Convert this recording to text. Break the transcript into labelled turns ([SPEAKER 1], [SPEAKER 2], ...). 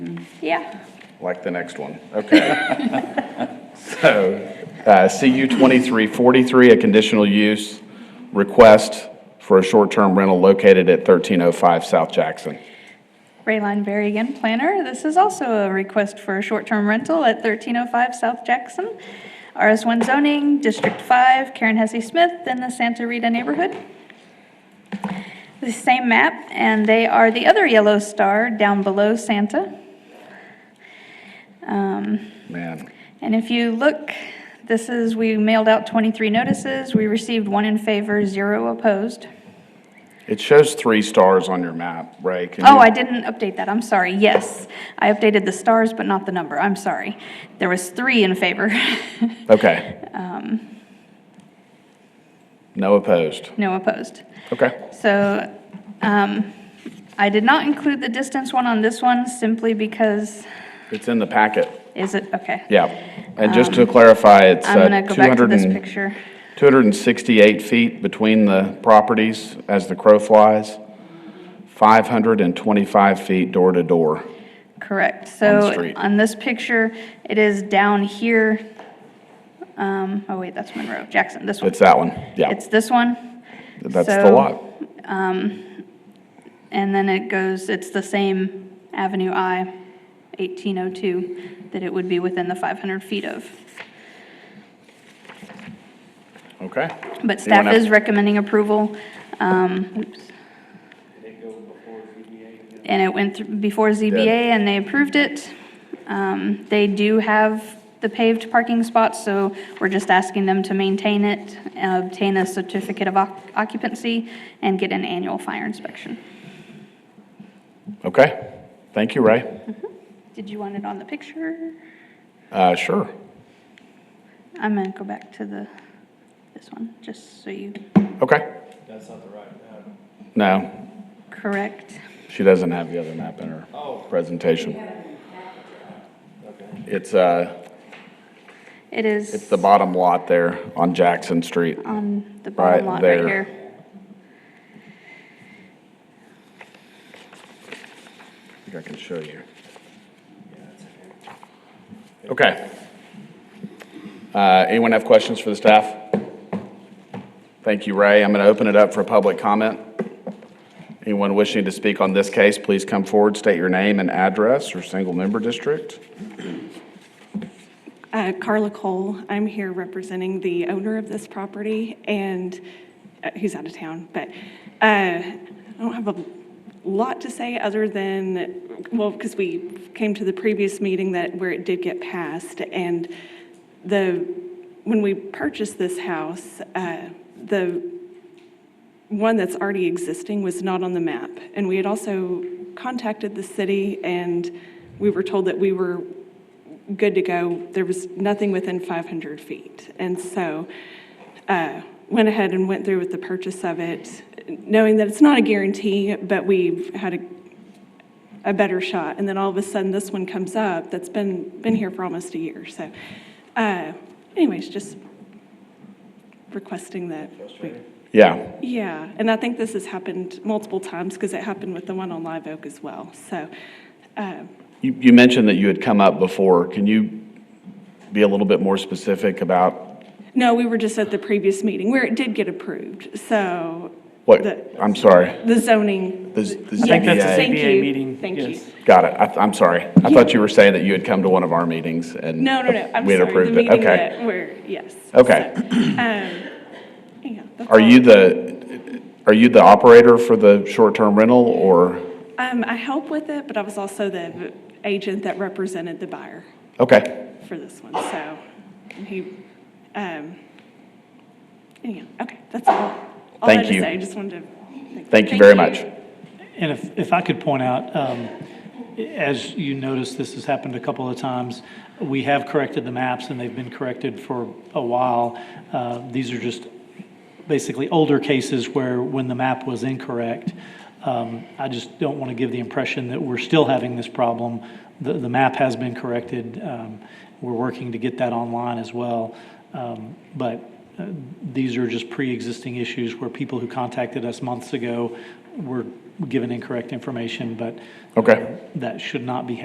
[SPEAKER 1] Yeah,
[SPEAKER 2] Like the next one, okay. So, uh, CU 2343, a conditional use request for a short-term rental located at 1305 South Jackson.
[SPEAKER 1] Rayline Berry again, planner. This is also a request for a short-term rental at 1305 South Jackson. RS1 zoning, District 5, Karen Hesse Smith, in the Santa Rita neighborhood. The same map, and they are the other yellow star down below Santa. Um,
[SPEAKER 2] Man,
[SPEAKER 1] And if you look, this is, we mailed out 23 notices. We received one in favor, zero opposed.
[SPEAKER 2] it shows three stars on your map, Ray. Can
[SPEAKER 1] Oh,
[SPEAKER 2] you-
[SPEAKER 1] I didn't update that, I'm sorry, yes. I updated the stars, but not the number, I'm sorry. There was three in favor,
[SPEAKER 2] Okay.
[SPEAKER 1] Um.
[SPEAKER 2] No opposed,
[SPEAKER 1] no opposed.
[SPEAKER 2] okay.
[SPEAKER 1] So um, I did not include the distance one on this one simply because,
[SPEAKER 2] It's in the packet,
[SPEAKER 1] is it, okay.
[SPEAKER 2] yeah. And just to clarify, it's
[SPEAKER 1] Um, I'm
[SPEAKER 2] uh,
[SPEAKER 1] gonna go back to
[SPEAKER 2] 200
[SPEAKER 1] this
[SPEAKER 2] and
[SPEAKER 1] picture.
[SPEAKER 2] 268 feet between the properties as the crow flies, 525 feet door to door.
[SPEAKER 1] Correct,
[SPEAKER 2] the
[SPEAKER 1] so
[SPEAKER 2] street.
[SPEAKER 1] on this picture, it is down here. Um, Oh, wait, that's Monroe, Jackson, this one.
[SPEAKER 2] It's that one, yeah.
[SPEAKER 1] It's this one.
[SPEAKER 2] That's the
[SPEAKER 1] So- um,
[SPEAKER 2] lot.
[SPEAKER 1] And then it goes, it's the same Avenue I, 1802, that it would be within the 500 feet of.
[SPEAKER 2] Okay.
[SPEAKER 1] But
[SPEAKER 2] You wanna-
[SPEAKER 1] staff is recommending approval. um, oops. And it went thr- before ZBA and they approved it. Um, They do have the paved parking spots, so we're just asking them to maintain it, uh, obtain a certificate of oc- occupancy, and get an annual fire inspection.
[SPEAKER 2] Okay, thank you, Ray.
[SPEAKER 1] Did you want it on the picture?
[SPEAKER 2] Uh, sure.
[SPEAKER 1] I'm gonna go back to the, this one, just so you,
[SPEAKER 2] Okay.
[SPEAKER 3] That's not the right map.
[SPEAKER 2] No,
[SPEAKER 1] correct.
[SPEAKER 2] she doesn't have the other map in her presentation. It's, uh,
[SPEAKER 1] It is.
[SPEAKER 2] it's the bottom lot there on Jackson Street.
[SPEAKER 1] On the bottom
[SPEAKER 2] Right
[SPEAKER 1] lot right
[SPEAKER 2] there.
[SPEAKER 1] here.
[SPEAKER 2] I think I can show you. Okay. Uh, Anyone have questions for the staff? Thank you, Ray. I'm going to open it up for public comment. Anyone wishing to speak on this case, please come forward, state your name and address or single member district.
[SPEAKER 4] Uh, Carla Cole, I'm here representing the owner of this property and, uh, who's out of town, but uh, I don't have a lot to say other than, well, because we came to the previous meeting that, where it did get passed, and the, when we purchased this house, uh, the one that's already existing was not on the map. And we had also contacted the city, and we were told that we were good to go. There was nothing within 500 feet. And so uh, went ahead and went through with the purchase of it, knowing that it's not a guarantee, but we've had a, a better shot. And then all of a sudden, this one comes up that's been, been here for almost a year. So uh, anyways, just requesting that. we-
[SPEAKER 2] Yeah,
[SPEAKER 4] yeah, and I think this has happened multiple times because it happened with the one on Live Oak as well. So, um,
[SPEAKER 2] you you mentioned that you had come up before. Can you be a little bit more specific about
[SPEAKER 4] no, we were just at the previous meeting where it did get approved. So
[SPEAKER 2] what,
[SPEAKER 4] The-
[SPEAKER 2] I'm sorry.
[SPEAKER 4] the zoning.
[SPEAKER 2] The z- the
[SPEAKER 3] I think that's
[SPEAKER 2] ZBA.
[SPEAKER 3] a
[SPEAKER 4] Thank
[SPEAKER 3] ZBA
[SPEAKER 4] you.
[SPEAKER 3] meeting,
[SPEAKER 4] Thank you.
[SPEAKER 3] yes.
[SPEAKER 2] Got it. I- I'm sorry. I thought you were saying that you had come to one of our meetings and.
[SPEAKER 4] No, no, no, I'm
[SPEAKER 2] we had
[SPEAKER 4] sorry, the
[SPEAKER 2] approved it.
[SPEAKER 4] meeting
[SPEAKER 2] Okay.
[SPEAKER 4] that where, yes.
[SPEAKER 2] Okay.
[SPEAKER 4] Um, yeah, that's
[SPEAKER 2] Are
[SPEAKER 4] all.
[SPEAKER 2] you the, are you the operator for the short-term rental or?
[SPEAKER 4] Um, I help with it, but I was also the agent that represented the buyer
[SPEAKER 2] Okay,
[SPEAKER 4] for this one, so he, um, anyhow, okay, that's all. All I
[SPEAKER 2] Thank
[SPEAKER 4] had to
[SPEAKER 2] you.
[SPEAKER 4] say, I just wanted to.
[SPEAKER 2] thank you very much.
[SPEAKER 3] And if, if I could point out, um, as you notice, this has happened a couple of times. We have corrected the maps and they've been corrected for a while. Uh, These are just basically older cases where, when the map was incorrect. Um, I just don't want to give the impression that we're still having this problem. The, the map has been corrected. Um, We're working to get that online as well. Um, But uh, these are just pre-existing issues where people who contacted us months ago were given incorrect information, but
[SPEAKER 2] Okay.
[SPEAKER 3] that should not be